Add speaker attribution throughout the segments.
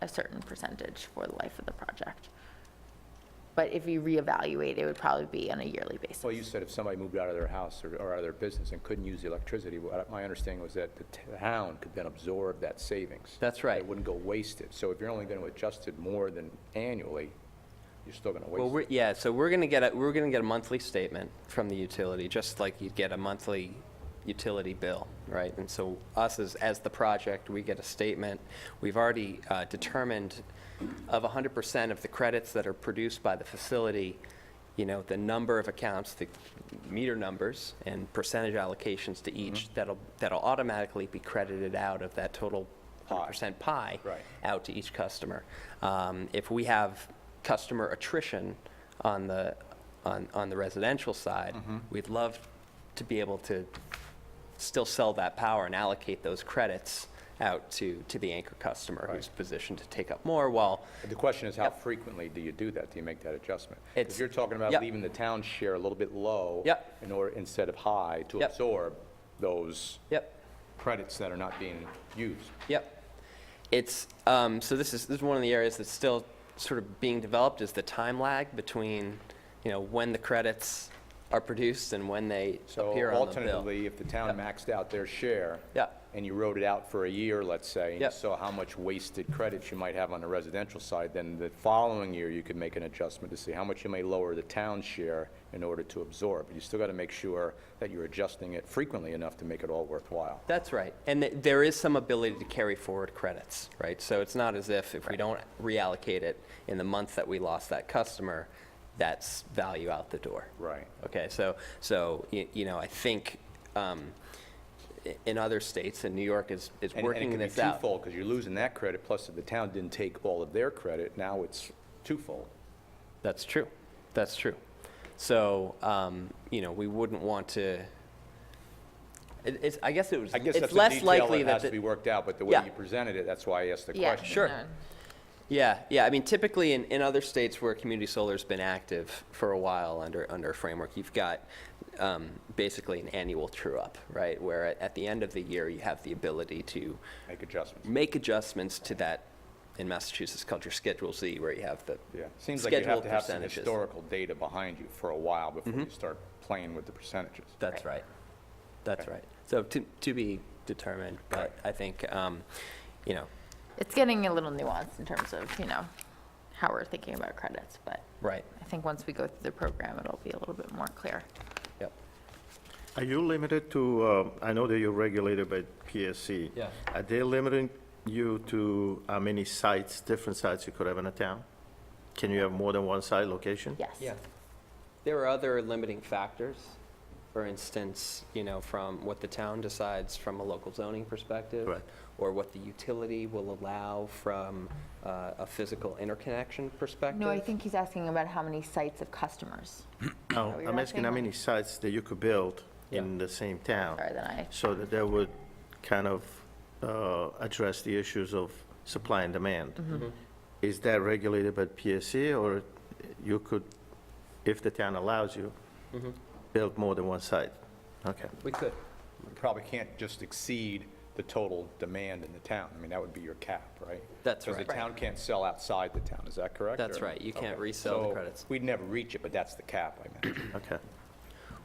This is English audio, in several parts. Speaker 1: a certain percentage for the life of the project. But if you reevaluate, it would probably be on a yearly basis.
Speaker 2: Well, you said if somebody moved out of their house or, or out of their business and couldn't use the electricity, what I- my understanding was that the town could then absorb that savings.
Speaker 3: That's right.
Speaker 2: It wouldn't go wasted. So if you're only going to adjust it more than annually, you're still going to
Speaker 3: Well,
Speaker 2: waste
Speaker 3: we're,
Speaker 2: it.
Speaker 3: yeah, so we're gonna get, a we're gonna get a monthly statement from the utility, just like you'd get a monthly utility bill, right? And so us as, as the project, we get a statement. We've already uh, determined of 100% of the credits that are produced by the facility, you know, the number of accounts, the meter numbers and percentage allocations to each that'll, that'll automatically be credited out of that total 100% pie
Speaker 2: Right.
Speaker 3: out to each customer. Um, If we have customer attrition on the, on, on the residential side,
Speaker 2: Mm-hmm.
Speaker 3: we'd love to be able to still sell that power and allocate those credits out to, to the anchor customer who's
Speaker 2: Right.
Speaker 3: positioned to take up more while,
Speaker 2: The question is, how frequently do you do that? Do you make that adjustment?
Speaker 3: It's-
Speaker 2: If you're talking about
Speaker 3: yep.
Speaker 2: leaving the town share a little bit low.
Speaker 3: Yep.
Speaker 2: In order, instead of high, to
Speaker 3: Yep.
Speaker 2: absorb those
Speaker 3: yep,
Speaker 2: credits that are not being used.
Speaker 3: Yep. It's, um, so this is, this is one of the areas that's still sort of being developed is the time lag between, you know, when the credits are produced and when they
Speaker 2: So
Speaker 3: appear on the bill.
Speaker 2: alternatively, if the town maxed out their share.
Speaker 3: Yeah.
Speaker 2: And you wrote it out for a year, let's say. and you
Speaker 3: Yep.
Speaker 2: Saw how much wasted credits you might have on the residential side, then the following year, you could make an adjustment to see how much you may lower the town share in order to absorb. But you still got to make sure that you're adjusting it frequently enough to make it all worthwhile.
Speaker 3: That's right. And th- there is some ability to carry forward credits, right? So it's not as if, if we don't reallocate it in the month that we lost that customer, that's value out the door.
Speaker 2: Right.
Speaker 3: Okay, so, so, y- you know, I think, um, i- in other states, and New York is, is
Speaker 2: And-
Speaker 3: working this
Speaker 2: And it can be
Speaker 3: out.
Speaker 2: twofold, because you're losing that credit, plus if the town didn't take all of their credit, now it's twofold.
Speaker 3: That's true. That's true. So, um, you know, we wouldn't want to. It, it's, I guess it was.
Speaker 2: I guess
Speaker 3: it's
Speaker 2: that's a
Speaker 3: less
Speaker 2: detail
Speaker 3: likely
Speaker 2: that has
Speaker 3: the-
Speaker 2: to be worked out, but the way
Speaker 3: Yeah.
Speaker 2: you presented it, that's why I asked the
Speaker 1: Yeah,
Speaker 2: question.
Speaker 3: Sure.
Speaker 1: no.
Speaker 3: Yeah, yeah. I mean, typically in, in other states where community solar's been active for a while under under a framework, you've got um, basically an annual true up, right? Where at, at the end of the year, you have the ability to
Speaker 2: Make adjustments.
Speaker 3: make adjustments to that. In Massachusetts, called your Schedule Z, where you have the
Speaker 2: Yeah, seems like you have
Speaker 3: scheduled
Speaker 2: to have some
Speaker 3: percentages. Mm-hmm.
Speaker 2: historical data behind you for a while before you start playing with the percentages.
Speaker 3: That's right. That's right. So to, to be determined, but I think, um, you know,
Speaker 1: It's getting a little nuanced in terms of, you know, how we're thinking about credits, but
Speaker 3: right,
Speaker 1: I think once we go through the program, it'll be a little bit more clear.
Speaker 3: yep.
Speaker 4: Are you limited to, uh, I know that you're regulated by PSC.
Speaker 3: Yeah.
Speaker 4: Are they limiting you to how many sites, different sites you could have in a town? Can you have more than one site location?
Speaker 1: Yes.
Speaker 3: There are other limiting factors. For instance, you know, from what the town decides from a local zoning perspective.
Speaker 4: Right.
Speaker 3: Or what the utility will allow from uh, a physical interconnection perspective.
Speaker 1: No, I think he's asking about how many sites of customers.
Speaker 4: No,
Speaker 1: Oh, you're
Speaker 4: I'm
Speaker 1: not
Speaker 4: asking
Speaker 1: saying
Speaker 4: how
Speaker 1: that.
Speaker 4: many sites that you could build in
Speaker 3: Yeah.
Speaker 4: the same town.
Speaker 1: Sorry, then I-
Speaker 4: So that that would kind of uh, address the issues of supply and demand. Is that regulated by PSC, or you could, if the town allows you, build more than one site? Okay.
Speaker 3: We could.
Speaker 2: You probably can't just exceed the total demand in the town. I mean, that would be your cap, right?
Speaker 3: That's
Speaker 2: Because
Speaker 3: right.
Speaker 2: the town can't sell outside the town, is that correct?
Speaker 3: That's
Speaker 2: or-
Speaker 3: right. You can't
Speaker 2: Okay.
Speaker 3: resell the
Speaker 2: So
Speaker 3: credits.
Speaker 2: we'd never reach it, but that's the cap, I imagine.
Speaker 4: Okay.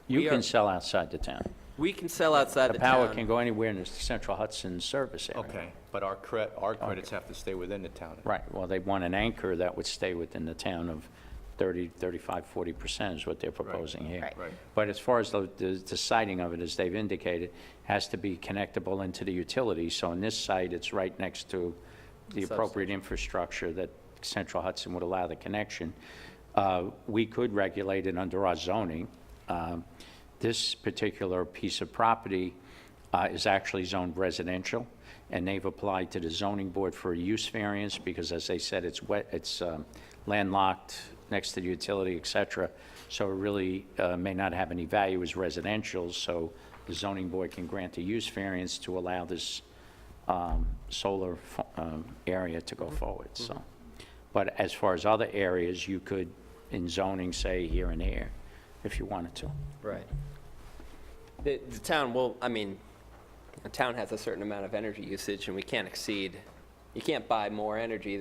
Speaker 3: We
Speaker 5: You
Speaker 3: are-
Speaker 5: can sell outside the town.
Speaker 3: We can sell outside
Speaker 5: The
Speaker 3: the
Speaker 5: power can
Speaker 3: town.
Speaker 5: go anywhere in the central Hudson service area.
Speaker 2: But our cred, our credits have to stay within the town.
Speaker 5: Right, well, they want an anchor that would stay within the town of 30, 35, 40% is what they're proposing here.
Speaker 1: Right.
Speaker 2: Right.
Speaker 5: But as far as the- the the siting of it, as they've indicated, has to be connectable into the utility. So on this site, it's right next to the appropriate infrastructure that Central Hudson would allow the connection. Uh, We could regulate it under our zoning. Um, This particular piece of property uh, is actually zoned residential, and they've applied to the zoning board for a use variance because, as they said, it's wet, it's um, landlocked next to the utility, et cetera. So it really uh, may not have any value as residential, so the zoning board can grant a use variance to allow this um, solar fo- um, area to go forward, so. But as far as other areas, you could, in zoning, say here and there, if you wanted to.
Speaker 3: Right. The, the town will, I mean, the town has a certain amount of energy usage and we can't exceed, you can't buy more energy